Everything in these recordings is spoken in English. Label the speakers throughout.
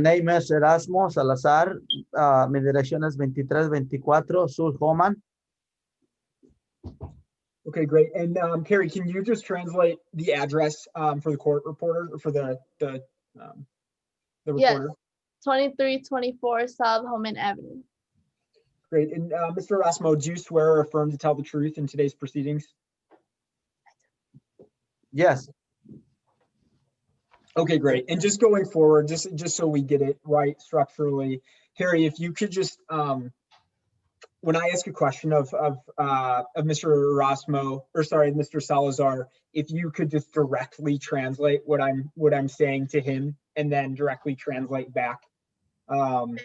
Speaker 1: name is Erasmo Salazar. Uh, mi dirección es 2324 Sur Homan.
Speaker 2: Okay, great. And um, Carrie, can you just translate the address um, for the court reporter or for the the um, the
Speaker 3: Yes.
Speaker 2: reporter?
Speaker 3: 2324 South Holman Avenue.
Speaker 2: Great. And uh, Mr. Erasmo, do you swear or affirm to tell the truth in today's proceedings?
Speaker 1: Yes,
Speaker 2: Okay, great. And just going forward, just just so we get it right structurally, Harry, if you could just um, when I ask a question of of uh, of Mr. Erasmo or sorry, Mr. Salazar, if you could just directly translate what I'm what I'm saying to him and then directly translate back. Um,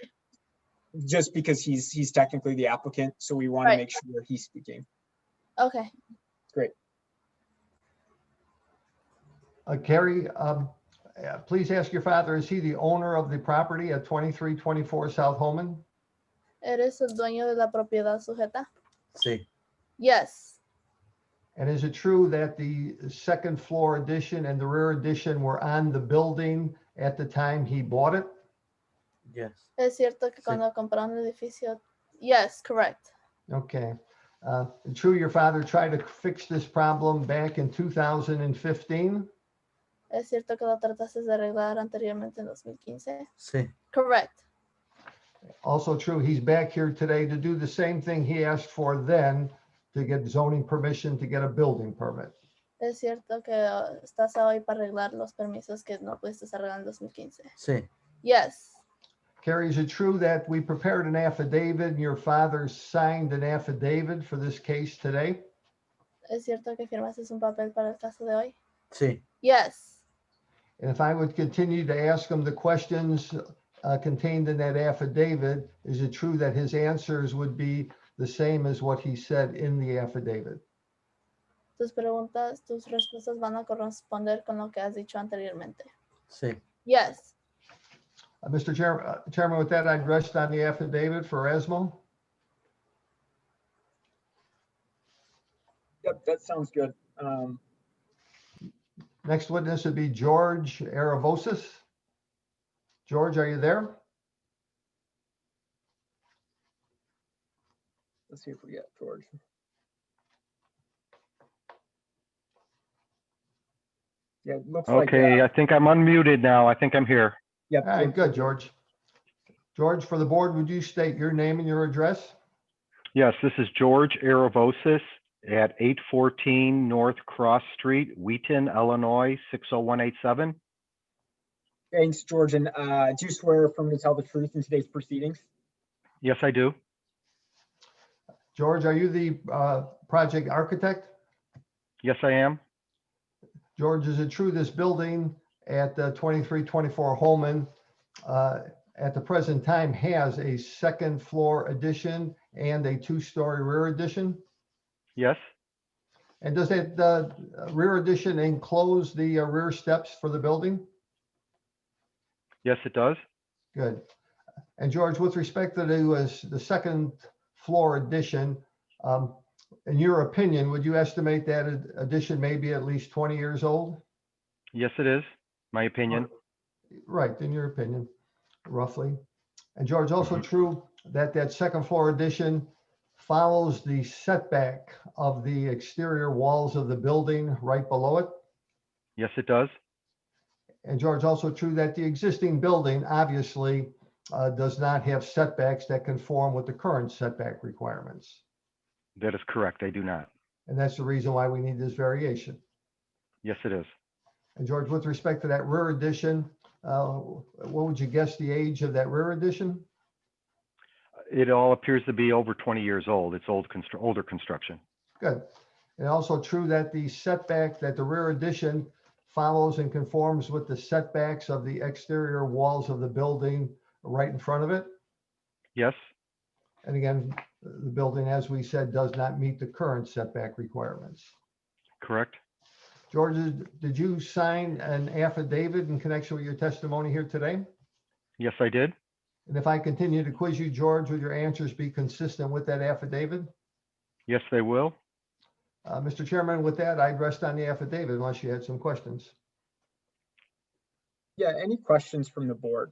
Speaker 2: just because he's he's technically the applicant, so we want to
Speaker 3: Right.
Speaker 2: make sure he's speaking.
Speaker 3: Okay.
Speaker 4: Uh, Carrie, um, uh, please ask your father, is he the owner of the property at 2324 South Holman?
Speaker 3: ¿Eres el dueño de la propiedad sujeta?
Speaker 1: sí,
Speaker 3: Yes.
Speaker 4: And is it true that the second floor addition and the rear addition were on the building at the time he bought it?
Speaker 1: yes.
Speaker 3: Es cierto
Speaker 1: Sí.
Speaker 3: que cuando compraron el edificio. Yes, correct.
Speaker 4: Okay. Uh, True, your father tried to fix this problem back in 2015?
Speaker 3: Es cierto que lo trataste de arreglar anteriormente en 2015.
Speaker 1: Sí,
Speaker 3: Correct.
Speaker 4: Also true, he's back here today to do the same thing he asked for then to get zoning permission to get a building permit.
Speaker 3: Es cierto que uh, estás hoy para arreglar los permisos que no pudiste arreglar en 2015.
Speaker 1: sí,
Speaker 3: Yes.
Speaker 4: Carrie, is it true that we prepared an affidavit and your father signed an affidavit for this case today?
Speaker 3: Es cierto que firmaste un papel para el caso de hoy.
Speaker 1: sí,
Speaker 3: Yes.
Speaker 4: And if I would continue to ask him the questions uh, contained in that affidavit, is it true that his answers would be the same as what he said in the affidavit?
Speaker 3: Tus preguntas, tus respuestas van a corresponder con lo que has dicho anteriormente.
Speaker 1: sí.
Speaker 3: Yes.
Speaker 4: Uh, Mr. Chair- uh, Chairman, with that, I'd rest on the affidavit for Esmo.
Speaker 2: Yep, that sounds good. Um,
Speaker 4: Next witness would be George Aravosis. George, are you there?
Speaker 2: let's see if we get George. Yeah, it looks like. uh,
Speaker 5: Okay, I think I'm unmuted now. I think I'm here.
Speaker 2: Yep.
Speaker 4: All right, good, George. George, for the board, would you state your name and your address?
Speaker 5: Yes, this is George Aravosis at 814 North Cross Street, Wheaton, Illinois, 60187.
Speaker 2: Thanks, George. And uh, do you swear affirm to tell the truth in today's proceedings?
Speaker 5: Yes, I do.
Speaker 4: George, are you the uh, project architect?
Speaker 5: Yes, I am.
Speaker 4: George, is it true this building at uh, 2324 Holman uh, at the present time has a second floor addition and a two-story rear addition?
Speaker 5: Yes,
Speaker 4: And does that uh, rear addition enclose the uh, rear steps for the building?
Speaker 5: yes, it does.
Speaker 4: Good. And George, with respect to the, was the second floor addition, um, in your opinion, would you estimate that ad- addition may be at least 20 years old?
Speaker 5: Yes, it is. My opinion.
Speaker 4: Right, in your opinion, roughly. And George, also true that that second floor addition follows the setback of the exterior walls of the building right below it?
Speaker 5: Yes, it does.
Speaker 4: And George, also true that the existing building obviously uh, does not have setbacks that conform with the current setback requirements.
Speaker 5: That is correct. I do not.
Speaker 4: And that's the reason why we need this variation.
Speaker 5: Yes, it is.
Speaker 4: And George, with respect to that rear addition, uh, what would you guess the age of that rear addition?
Speaker 5: It all appears to be over 20 years old. It's old, constr- older construction.
Speaker 4: Good. And also true that the setback, that the rear addition follows and conforms with the setbacks of the exterior walls of the building right in front of it?
Speaker 5: Yes,
Speaker 4: And again, the building, as we said, does not meet the current setback requirements.
Speaker 5: correct.
Speaker 4: George, did you sign an affidavit in connection with your testimony here today?
Speaker 5: Yes, I did.
Speaker 4: And if I continue to quiz you, George, would your answers be consistent with that affidavit?
Speaker 5: Yes, they will.
Speaker 4: Uh, Mr. Chairman, with that, I'd rest on the affidavit unless you had some questions.
Speaker 2: Yeah, any questions from the board?